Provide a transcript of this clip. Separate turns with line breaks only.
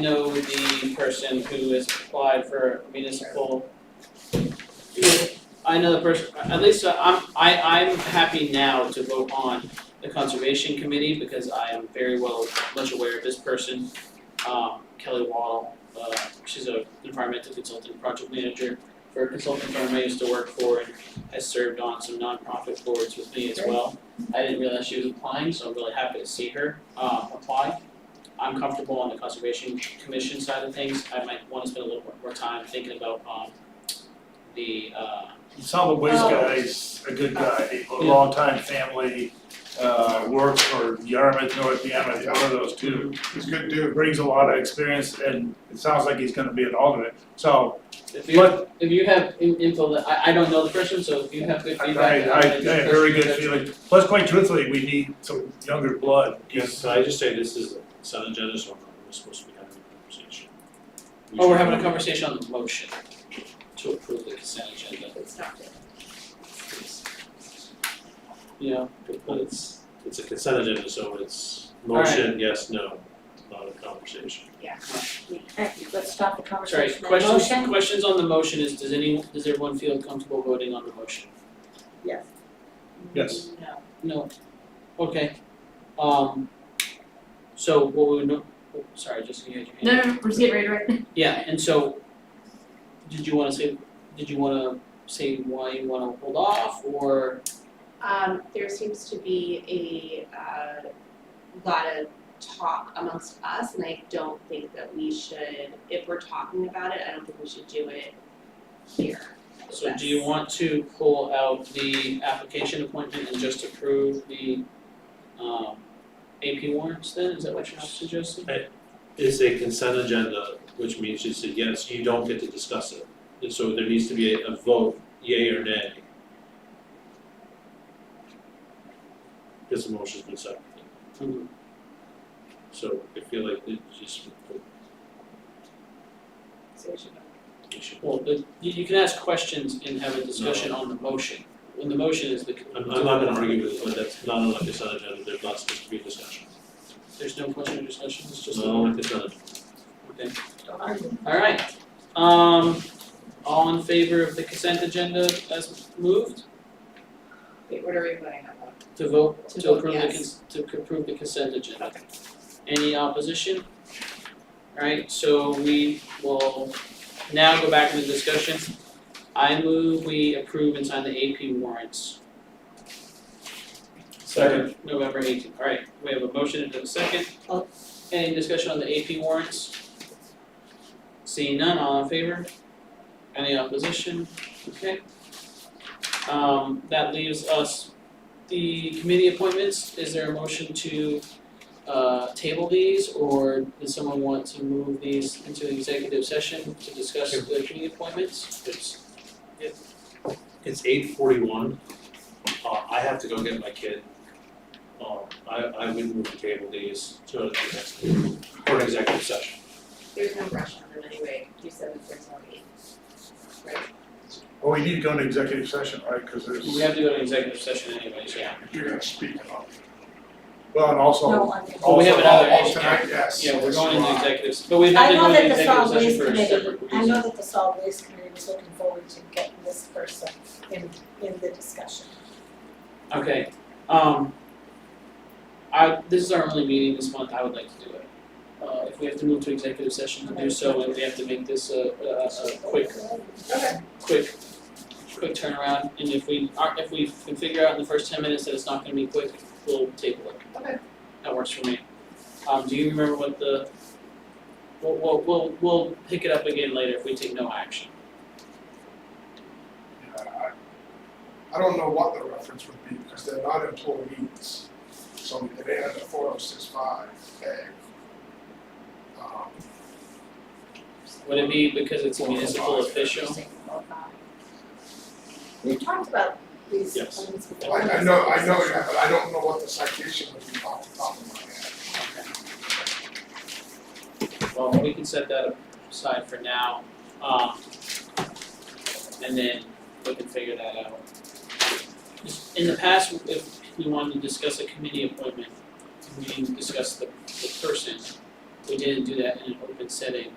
know the person who has applied for municipal. I know the person, at least I'm, I, I'm happy now to vote on the conservation committee because I am very well, much aware of this person. Um, Kelly Waddle, uh, she's a environmental consultant, project manager for a consulting firm I used to work for and has served on some nonprofit boards with me as well. I didn't realize she was applying, so I'm really happy to see her, uh, apply. I'm comfortable on the conservation commission side of things, I might wanna spend a little more, more time thinking about, um, the, uh,
You saw the waste
Oh.
guy's a good guy, a
Yeah.
longtime family, uh, worked for Yarmouth, North Yarmouth, one of those two.
He's a good
It
dude.
Brings a lot of experience and it sounds like he's gonna be an alternate, so,
if you,
but
if you have in- info that, I, I don't know the person, so if you have good
I, I,
feedback,
I I
then
have very good
that's-
feeling. Plus, quite truthfully, we need some younger blood,
Yes, I just say this is a consent agenda, so we're supposed to be having a conversation. We
Oh, we're
should-
having a conversation on the motion to approve the consent agenda,
It's not good.
it's, you know, but it's,
It's a consent agenda, so it's
All right.
motion, yes, no, not a conversation.
Let's stop
sorry,
the conversation. The
questions,
motion?
questions on the motion is, does any, does everyone feel comfortable voting on the motion?
Yes.
Yes.
No.
No, okay, um, so what we would, no- oh, sorry, just you had your hand.
No, no, no, we're just getting ready to write.
Yeah, and so, did you wanna say, did you wanna say why you wanna hold off, or,
Um, there seems to be a, uh, lot of talk amongst us, and I don't think that we should, if we're talking about it, I don't think we should do it here.
so do you want to pull out the application appointment and just approve the, um, AP warrants then, is that what you're suggesting?
It's a consent agenda, which means you say yes, you don't get to discuss it. And so there needs to be a a vote, yay or nay. Because the motion's been seconded, Mm-hmm.
Mhm.
so I feel like it just,
So we should vote.
you should,
Well, the, you, you can ask questions and have a discussion on the motion, when the motion is the.
I'm I'm not gonna argue with it, but that's not on a consent agenda, there's not supposed to be a discussion.
There's no question or discussion, it's just a
No, on a consent agenda.
Okay. Alright, um, all in favor of the consent agenda as moved
Wait, what are we voting on?
to vote,
To
to
vote
approve the
yes.
cons- to approve the consent agenda? Any opposition? Alright, so we will now go back into discussion. I move we approve and sign the AP warrants.
Second.
for November eighteenth, alright, we have a motion and a second.
Oh.
Any discussion on the AP warrants? Seeing none, all in favor? Any opposition? Okay. Um, that leaves us the committee appointments, is there a motion to uh table these, or does someone want to move these into executive session to discuss the committee appointments? It's-
It's eight forty-one, uh, I have to go get my kid. Um, I, I would move the table these to the next meeting, or executive session.
There's no rush on them anyway, you said that there's no need.
well, we need to go into executive session, right, cause
we
there's,
have to go to executive session anyways, yeah.
you're
gonna speak up. Well, and also,
No,
also,
on the-
Oh, we have another
al-
issue.
alternate, yes,
Yeah, we're
that's
going into
right.
executive, s- but we have
I
to
know
go
that
into
the
executive session
solid waste
for a separate
committee,
reason.
I know that the solid waste committee was looking forward to getting this person in, in the discussion.
Okay, um. I, this is our only meeting this month, I would like to do it. Uh, if we have to move to executive session to do so, and we have to make this a a a quick quick, quick turnaround, and if we are, if we can figure out in the first ten minutes that it's not gonna be quick, we'll table it.
Okay.
That works for me. Um, do you remember what the, we'll, we'll, we'll, we'll pick it up again later if we take no action.
I- I don't know what the reference would be, because they're not employees, so it ain't under four oh six five A. Um,
Would it be because it's a municipal official?
We talked about these
Yes.
things before.
I, I know, I know, yeah, but I don't know what the citation would be off the top of my head.
Well, we can set that aside for now, um, and then we can figure that out. In the past, if we wanted to discuss a committee appointment, we didn't discuss the, the person, we didn't do that in an open setting